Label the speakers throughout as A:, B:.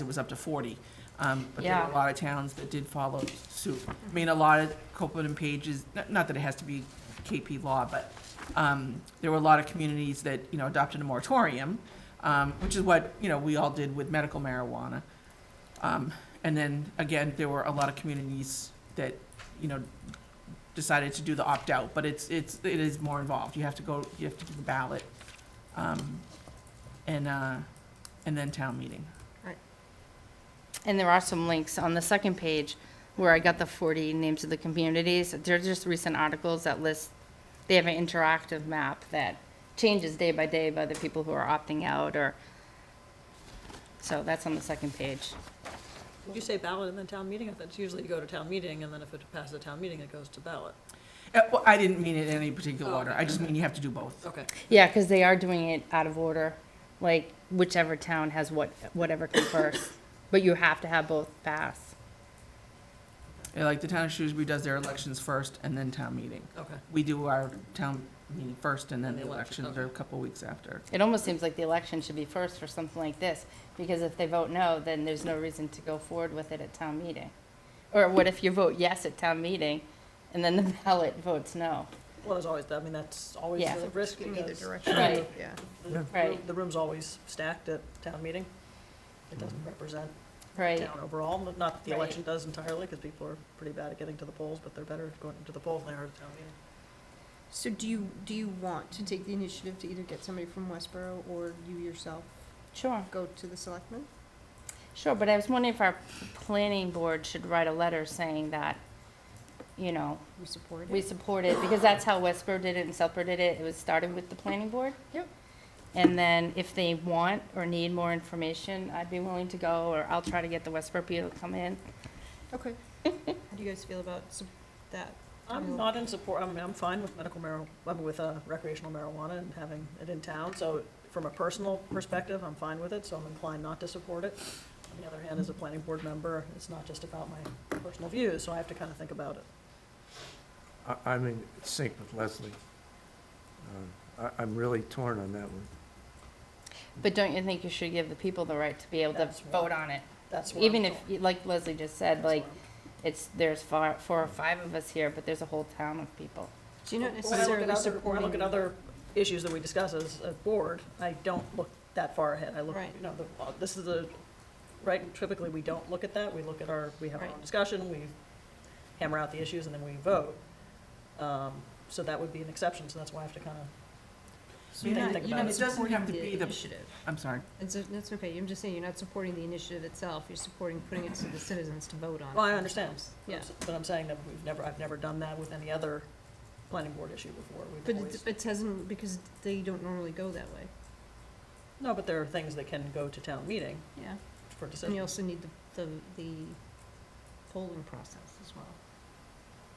A: it was up to 40. um, But there were
B: Yeah.
A: a lot of towns that did follow suit. I mean, a lot of Copeland and Pages, not not that it has to be KP law, but um, there were a lot of communities that, you know, adopted a moratorium, um, which is what, you know, we all did with medical marijuana. Um, And then, again, there were a lot of communities that, you know, decided to do the opt-out, but it's, it's, it is more involved. You have to go, you have to do the ballot, um, and, uh, and then town meeting.
B: And there are some links on the second page where I got the 40 names of the communities. They're just recent articles that list, they have an interactive map that changes day by day by the people who are opting out or, so that's on the second page.
C: You say ballot and then town meeting, I thought it's usually you go to town meeting, and then if it passes the town meeting, it goes to ballot.
A: Uh, well, I didn't mean it in any particular
C: Oh,
A: order. I just mean you have to do both.
C: Okay.
B: Yeah, because they are doing it out of order, like whichever town has what, whatever comes first. But you have to have both pass.
A: Yeah, Uh, Like the town of Shrewsbury does their elections first and then town meeting.
C: Okay.
A: We do our town meeting first and then
C: And
A: the
C: the election,
A: elections are a couple weeks after.
B: It almost seems like the election should be first for something like this, because if they vote no, then there's no reason to go forward with it at town meeting. Or what if you vote yes at town meeting, and then the ballot votes no?
C: Well, there's always, that. I mean, that's always
B: Yeah.
C: the risk
D: In either
C: because
D: direction.
B: Right.
D: Yeah.
C: the-
B: Right.
C: the room's always stacked at town meeting. It doesn't represent
B: Right,
C: town overall, not- not that the
B: Right.
C: election does entirely, because people are pretty bad at getting to the polls, but they're better at going to the polls than they are at town meeting.
D: So do you, do you want to take the initiative to either get somebody from Westboro or you yourself
B: sure,
D: go to the selectmen?
B: sure, but I was wondering if our planning board should write a letter saying that, you know,
D: We support it?
B: we support it, because that's how Westboro did it and Southboro did it, it was started with the planning board.
D: Yep.
B: And then if they want or need more information, I'd be willing to go, or I'll try to get the Westboro people to come in.
D: Okay. How do you guys feel about sup- that?
C: I'm
D: Um,
C: not in support, I mean, I'm fine with medical marijuana, I mean, with uh, recreational marijuana and having it in town, so from a personal perspective, I'm fine with it, so I'm inclined not to support it. On the other hand, as a planning board member, it's not just about my personal views, so I have to kind of think about it.
E: I, I'm in sync with Leslie. Um, I, I'm really torn on that one.
B: But don't you think you should give the people the right to be able to
C: That's
B: vote
C: right.
B: on it?
C: That's where I'm
B: Even if,
C: going.
B: like Leslie just
C: That's
B: said,
C: where
B: like,
C: I'm-
B: it's, there's four, four or five of us here, but there's a whole town of people.
D: Do you not
C: When I look
D: necessarily
C: at other, when I
D: supporting?
C: look at other issues that we discuss as a board, I don't look that far ahead. I look,
D: Right.
C: you know, the- uh, this is a, right, typically, we don't look at that. We look at our, we have our own
D: Right.
C: discussion, we hammer out the issues, and then we vote. Um, So that would be an exception, so that's why I have to kind of,
D: So you're
C: Think-
D: not-
C: think
D: you're
C: about
D: not
C: it.
A: It doesn't have to
D: supporting
A: be the-
D: Initiative.
A: I'm sorry.
D: It's, a- that's okay. I'm just saying, you're not supporting the initiative itself. You're supporting putting it to the citizens to vote on. it
C: well, I understand.
D: Yeah.
C: But I'm saying that we've never, I've never done that with any other planning board issue before.
D: But
C: We've
D: it,
C: always,
D: but it hasn't, because they don't normally go that way.
C: no, but there are things that can go to town meeting
D: Yeah.
C: for
D: And you
C: decisions.
D: also need the, the, the polling process as well,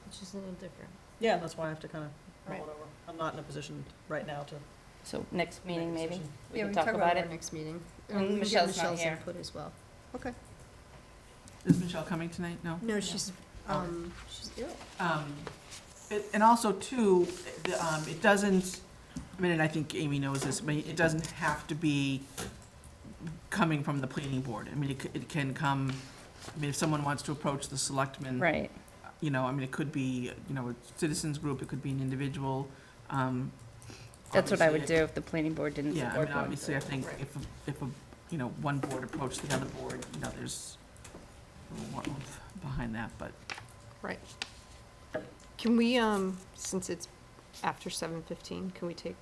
D: which is a little different.
C: Yeah, that's why I have to kind of
B: Right.
C: mull it over. I'm not in a position right now to
B: So next meeting,
C: make a
B: maybe,
C: decision.
B: we can talk about it.
D: next meeting.
B: And
D: we can get
B: Michelle's not
D: Michelle's
B: here.
D: input as well.
A: Is Michelle coming tonight? No?
D: No, she's,
A: Oh.
D: um, she's ill.
A: Um, it- And also too, the, um, it doesn't, I mean, and I think Amy knows this, but it doesn't have to be coming from the planning board. I mean, it c- it can come, I mean, if someone wants to approach the selectmen.
B: Right,
A: You know, I mean, it could be, you know, a citizens group, it could be an individual. um,
B: that's what I would do
A: obviously,
B: if the planning board didn't
A: Yeah, I
B: support
A: mean,
B: one.
A: obviously, I think if, a- if, a you know, one board approached the other board, you know, there's a little warmth behind that, but
D: Can we, um, since it's after seven fifteen, can we take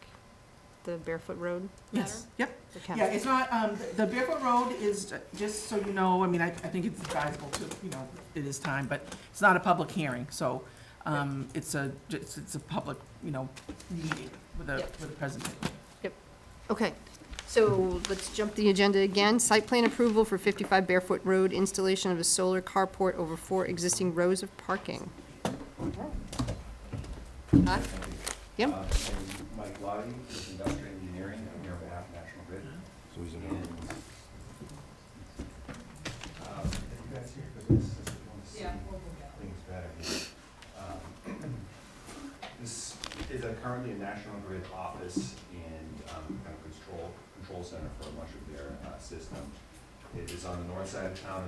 D: the barefoot road?
A: Yes, yep. Yeah, it's not, um, the Barefoot Road is, uh, just so you know, I mean, I, I think it's advisable to, you know, it is time, but it's not a public hearing, so, um, it's a, it's, it's a public, you know, meeting with a,
D: Yep.
A: with a presentation.
D: Okay, so let's jump the agenda again. Site plan approval for fifty-five Barefoot Road, installation of a solar carport over four existing rows of parking. Huh? Yep.
F: Uh, I'm Mike Lottie with Industrial Engineering, I'm here on behalf of National Grid. So he's in. um, You guys here for this? Is it one of the- I think it's better. here. Um, This is a- currently a National Grid office and um, kind of control, control center for much of their uh, system. It is on the north side of town